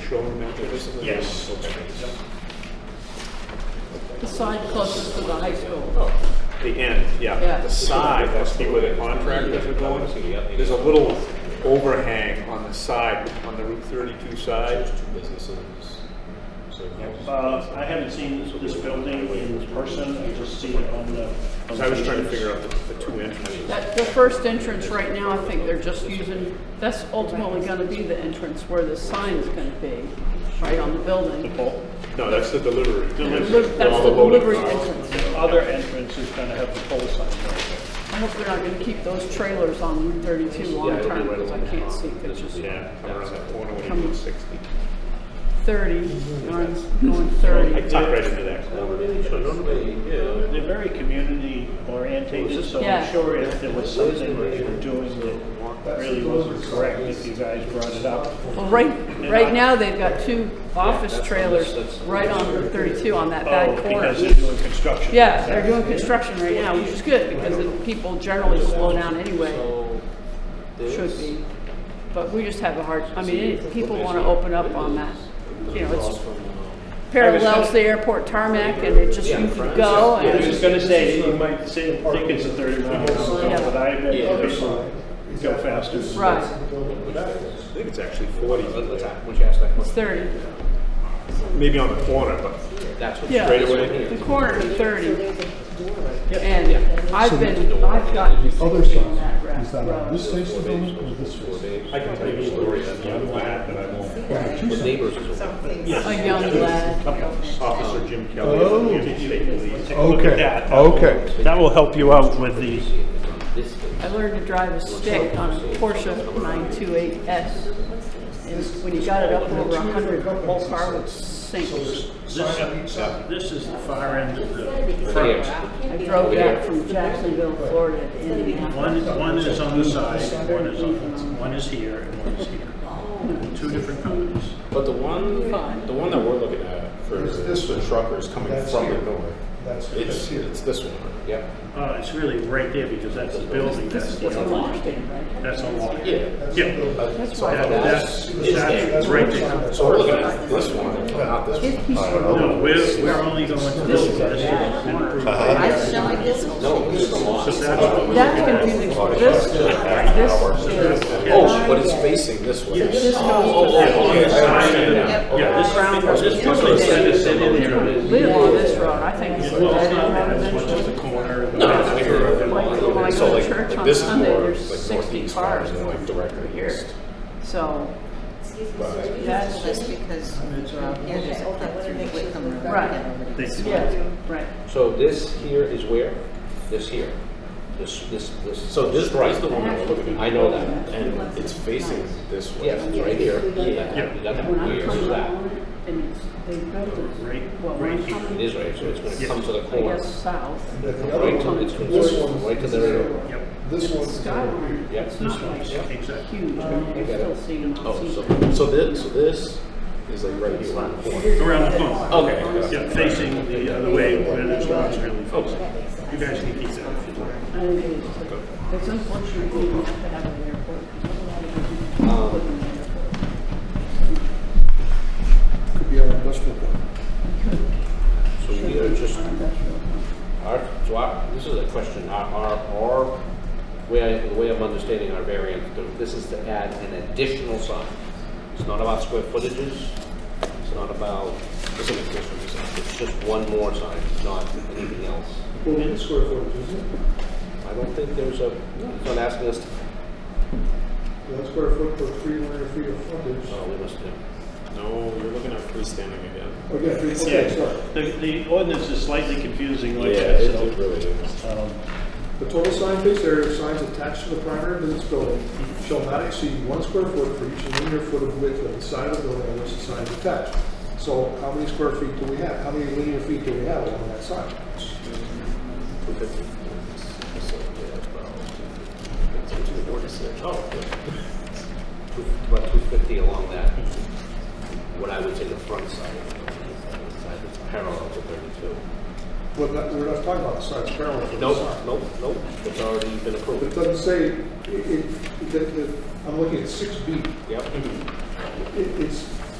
showroom entrance? Yes. Okay. The side closest to the high school. The end, yeah. Yeah. The side must be where the contractors are going. There's a little overhang on the side, on the Route 32 side. Uh, I haven't seen this- this building in person, I just see it on the. on So I was trying to pictures. figure out the the two entrances. That, the first entrance right now, I think they're just using, that's ultimately gonna be the entrance where the sign is gonna be, right on the building. Well, No, that's the delivery. Delivery. Look, That's All the loading delivery cars. entrance. The other entrance is gonna have the pole sign. I hope they're not gonna keep those trailers on Route thirty-two Yeah, long it'll be term, right because I along. can't see pictures. Yeah, come around that corner when Come- you hit 60. Thirty, going, going thirty. I tuck right into that corner. They're very community orientated, so I'm Yeah. sure if there was something that you were doing that really wasn't correct, if you guys brought it up. Well, right, right now, they've got two office trailers right on Route thirty-two on that Oh, back because corner. they're doing construction. Yeah, they're doing construction right now, which is good, because the people generally slow down anyway, should be. But we just have a hard, I mean, it- people wanna open up on that, you know, it's parallels the airport tarmac, and it just, you can go, I was and just gonna say, you might say, think it's a thirty mile an Oh, hour, but I bet people go faster. than that. right, I think it's actually 40. Would you ask that it's thirty. Maybe on the corner, but That's what. Yeah, Straight away? the corner to thirty. And I've been, I've gotten sick Other on that side, route. is that on this face of the building or this face? I can tell you stories on the other lab that I won't. Well, two sides. Neighbors is over. A young lad. Officer Jim Kelly of Oh. the United State Police. Take a look at that. Okay, okay. That will help you out with the, This thing. I learned to drive a stick on a Porsche 928S. And when you got it up over a hundred, the whole car would sink. this, this is the far end of the front. Yeah. I drove back from Jacksonville, Florida to Indianapolis. One, one is on the side, one is on, one is here, and one is here. Two different companies. But the one, Fine. the one that we're looking at for There's this the one. truckers coming That's from the here. door, That's, that's it's, here. it's this one. Yep. Uh, it's really right there, because that's the building, that's the It's a other, launch stand, right? that's a lot. Yeah. Yeah, That's that, why, that's, that's right there. So we're looking at this one, not this one. Uh, No, we're, we're only going to this, one. this is an approved. So that's, that's confusing. This, this is. Oh, but it's facing this way. This Oh, goes to on the side of the- Oh, yeah, this, this one they said is in there. that, live on this road, I think. it's Well, it's better not that, than it's having just that. a corner. No, it's here. Like, when I So go to like, church on this is Sunday, more there's like sixty northeast cars rather than going like directly through here. east. So, That's just because, yeah, there's all that through Whitcomb. Road. Right. They do. yeah, right. So this here is where? This here. This, this, this. So this is the one we're looking I know that. at, it's facing this way. Yes, it's right here. Yeah. Yeah. That's When I here. come So on that. it, and it's, they built Right- it, well, right when I here. come It is right, so it's gonna come to the I corner. guess south, Right to, it's gonna, right to the, Yep, This one's, skyline, Yeah. it's this not one, like exactly. huge, I mean, you're still seeing, I'll Oh, see. so, so this, so this is like right here on the corner. Around the corner. Okay. Yeah, facing the other way where there's not really folks. You guys can keep that if you'd like. And it is, It's unfortunate we have to have an airport. because otherwise we can put them in the airport. could be our industrial park. so we are just, Industrial. our, so our, this is a question, our, our, our, way, I- the way I'm understanding our variance, this is to add an additional sign. It's not about square footages, it's not about, it's an additional sign, it's just one more sign, not anything else. I don't think there's a, it's not asking us to, One square foot for three hundred feet of frontage. oh, we must do. No, you're looking at freestanding again. Oh, yeah, three, Yeah, okay, sorry. the, the ordinance is slightly confusing Yeah, like that, it it so. really is. um, The total sign face area of signs attached to the primary business building shall not exceed one square foot for each linear foot of width of the side of the building on which the sign is attached. So how many square feet do we have? How many linear feet do we have along that side? Oh. Two- About two fifty along that, what I would say the front side, the side that's parallel to thirty-two. We're not, we're not talking about the sides parallel to the Nope, sign. nope, nope, it's already been But it approved. doesn't say, it, it, that- that- I'm looking at six B. Yep, It, it's